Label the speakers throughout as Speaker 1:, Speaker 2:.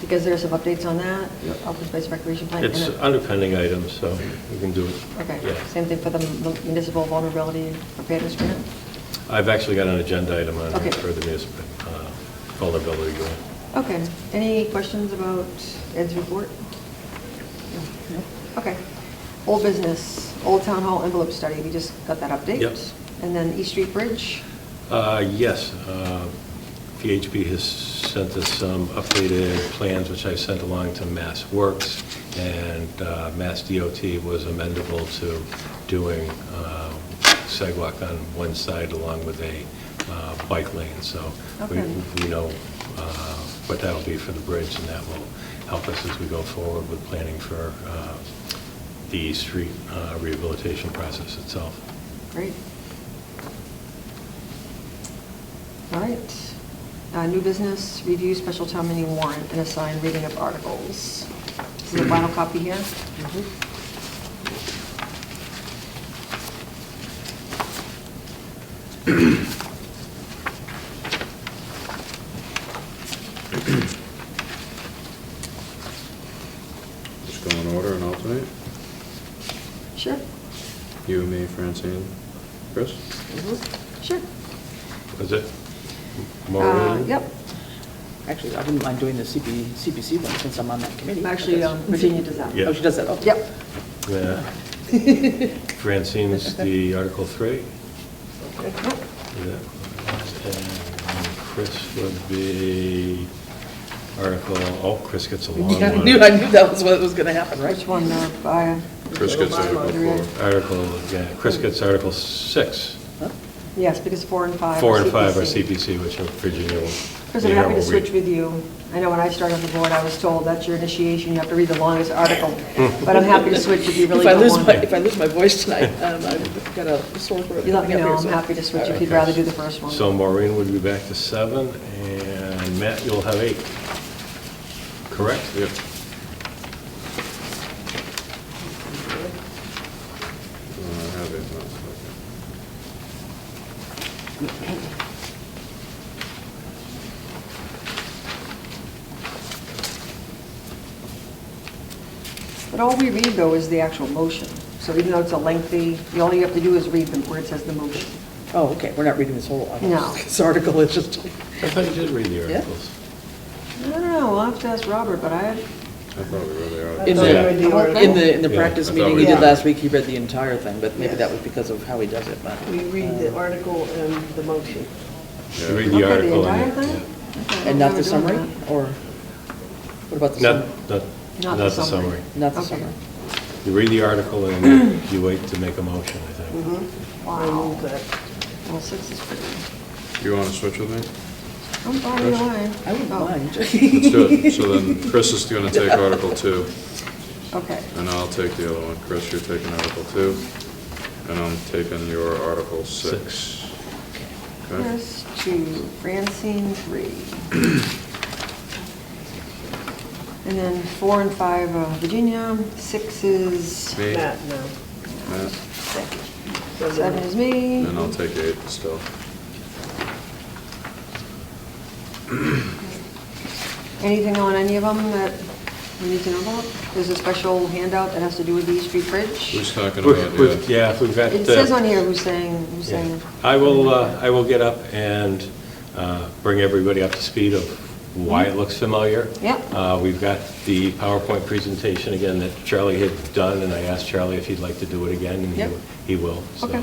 Speaker 1: because there's some updates on that,
Speaker 2: Yep.
Speaker 1: open space recreation plan. and
Speaker 3: It's
Speaker 1: it-
Speaker 3: under pending items, so we can do it.
Speaker 1: Okay,
Speaker 3: Yeah.
Speaker 1: same thing for the municipal vulnerability preparedness grant?
Speaker 3: I've actually got an agenda item on
Speaker 1: Okay.
Speaker 3: it for the municipal uh, vulnerability grant.
Speaker 1: Okay, any questions about Ed's report? No. Okay, old business, Old Town Hall envelope study, we just got that update.
Speaker 3: Yep.
Speaker 1: And then East Street Bridge,
Speaker 3: Uh, Yes, uh, VHB has sent us some updated plans, which I sent along to Mass Works, and uh, Mass DOT was amendable to doing uh, sidewalk on one side along with a uh, bike lane, so we
Speaker 1: Okay.
Speaker 3: we know uh, what that'll be for the bridge, and that will help us as we go forward with planning for uh, the street uh, rehabilitation process itself.
Speaker 1: great. All right, Uh, new business, review special town meeting warrant and assign reading of articles. Is the final copy here?
Speaker 2: Just go in order and alternate.
Speaker 1: Sure,
Speaker 2: You, me, Francine, Chris?
Speaker 1: sure.
Speaker 3: Is it?
Speaker 1: Uh,
Speaker 3: Maureen?
Speaker 1: Yep,
Speaker 4: Actually, I wouldn't mind doing the CP CPC one since I'm on that committee.
Speaker 1: actually, um, Virginia does that.
Speaker 3: Yeah.
Speaker 4: Oh, she does that, okay.
Speaker 1: Yep,
Speaker 3: Yeah. Francine's the Article 3.
Speaker 1: Yep.
Speaker 3: Yeah. And Chris would be Article, oh, Chris gets a long
Speaker 4: Yeah, I knew, I
Speaker 3: one.
Speaker 4: knew that was what was going to happen, right?
Speaker 1: Which one, uh, by,
Speaker 2: Chris gets Article
Speaker 1: Bylaw.
Speaker 2: four.
Speaker 3: Article, yeah,
Speaker 1: Oh.
Speaker 3: Chris gets Article 6.
Speaker 4: Huh?
Speaker 1: yes, because four and five. are
Speaker 3: Four and five are
Speaker 1: CPC.
Speaker 3: CPC, which are Virginia will.
Speaker 1: Chris, I'm happy to switch with you. I know when I started on the board, I was told that's your initiation, you have to read the longest article. But I'm happy to switch if you really
Speaker 4: If I
Speaker 1: don't
Speaker 4: lose
Speaker 1: want
Speaker 4: my, if I
Speaker 1: to.
Speaker 4: lose my voice tonight, um, I've got a sore throat.
Speaker 1: You let me
Speaker 4: coming up
Speaker 1: know,
Speaker 4: here,
Speaker 1: I'm
Speaker 4: so-
Speaker 1: happy to switch if
Speaker 4: All
Speaker 1: you'd rather do the first one.
Speaker 3: So Maureen would be back to 7, and Matt, you'll have 8. Correct?
Speaker 2: Yep. No, I have it, no, okay.
Speaker 1: But all we read, though, is the actual motion. So even though it's a lengthy, the only you have to do is read the where it says the motion.
Speaker 4: right. Oh, okay, we're not reading this whole article.
Speaker 1: No.
Speaker 4: This article is just,
Speaker 3: I thought you did read the
Speaker 4: Yeah.
Speaker 3: articles.
Speaker 1: I don't know, we'll have to ask Robert, but I,
Speaker 2: I thought we really are.
Speaker 4: in
Speaker 3: thought you
Speaker 4: the,
Speaker 3: read
Speaker 1: the article.
Speaker 4: in the, in the
Speaker 3: Yeah,
Speaker 4: practice
Speaker 2: I thought
Speaker 4: meeting
Speaker 2: we
Speaker 4: he did
Speaker 5: did.
Speaker 4: last week, he read the entire thing, but maybe
Speaker 5: Yes.
Speaker 4: that was because of how he does it, but.
Speaker 5: We read
Speaker 4: Um,
Speaker 5: the article and the motion.
Speaker 3: You read
Speaker 1: okay,
Speaker 3: the
Speaker 1: the
Speaker 3: article.
Speaker 1: entire
Speaker 3: and-
Speaker 1: thing? Okay, I don't
Speaker 4: And
Speaker 1: know
Speaker 4: not the
Speaker 1: if we're
Speaker 4: summary,
Speaker 1: doing
Speaker 4: or what about the
Speaker 3: Not,
Speaker 4: summary?
Speaker 3: not, not the summary.
Speaker 1: that.
Speaker 4: Not the
Speaker 1: Okay.
Speaker 4: summary.
Speaker 3: You read the article and then you wait to make a motion, I think.
Speaker 5: I move that.
Speaker 1: Well, six is pretty,
Speaker 2: You want to switch with me?
Speaker 1: I'm fine either way.
Speaker 4: I wouldn't
Speaker 1: Oh,
Speaker 4: mind.
Speaker 2: Let's do it. So then Chris is going to take Article Two,
Speaker 1: Okay.
Speaker 2: and I'll take the other one. Chris, you're taking Article Two, and I'm taking your Article Six. Okay?
Speaker 1: Chris, two, Francine, three. And then four and five, uh, Virginia, six is,
Speaker 2: Me, Matt,
Speaker 5: Matt, no. So then-
Speaker 1: seven is me.
Speaker 2: and I'll take eight still.
Speaker 1: Anything on any of them that we need to know about? There's a special handout that has to do with the East Street Bridge.
Speaker 2: Who's talking
Speaker 3: We've-
Speaker 2: about,
Speaker 3: we've-
Speaker 2: yeah?
Speaker 3: Yeah, if we've got.
Speaker 1: It
Speaker 3: uh,
Speaker 1: says on here who's saying, who's
Speaker 3: yeah.
Speaker 1: saying.
Speaker 3: I will, uh, I will get up and uh, bring everybody up to speed of why it looks familiar.
Speaker 1: Yep.
Speaker 3: Uh, We've got the PowerPoint presentation again that Charlie had done, and I asked Charlie if he'd like to do it again, and
Speaker 1: Yep.
Speaker 3: he- he will. so.
Speaker 1: Okay.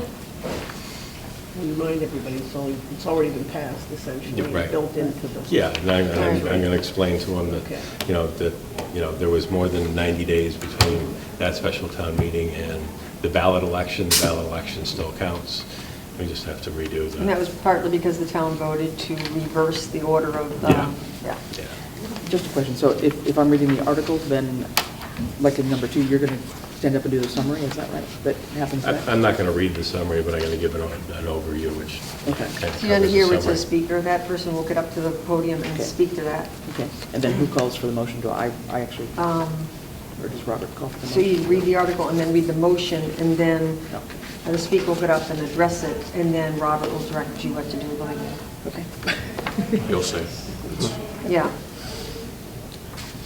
Speaker 5: Remind everybody, it's only, it's already been passed essentially,
Speaker 3: Yeah, right.
Speaker 5: built into the.
Speaker 3: Yeah, and I'm, I'm
Speaker 1: Alright.
Speaker 3: going to explain to them
Speaker 5: Okay.
Speaker 3: that, you know, that, you know, there was more than 90 days between that special town meeting and the ballot election. The ballot election still counts. We just have to redo the...
Speaker 1: And that was partly because the town voted to reverse the order of the,
Speaker 3: Yeah.
Speaker 1: yeah.
Speaker 3: Yeah.
Speaker 4: Just a question, so if, if I'm reading the article, then, like in number two, you're going to stand up and do the summary, is that right? That happens
Speaker 3: I-
Speaker 4: next?
Speaker 3: I'm not going to read the summary, but I'm going to give an o- an overview, which
Speaker 4: Okay.
Speaker 3: kind of
Speaker 1: See under
Speaker 3: covers
Speaker 1: here,
Speaker 3: the
Speaker 1: it says
Speaker 3: summary.
Speaker 1: speaker, that person will get up to the podium and
Speaker 4: Okay.
Speaker 1: speak to that.
Speaker 4: Okay, and then who calls for the motion? Do I, I actually,
Speaker 1: Um,
Speaker 4: or does Robert call for the motion?
Speaker 1: So you read the article and then read the motion, and then
Speaker 4: No.
Speaker 1: the speaker will get up and address it, and then Robert will direct you what to do. like,
Speaker 4: Okay.
Speaker 2: You'll see. It's-
Speaker 1: Yeah,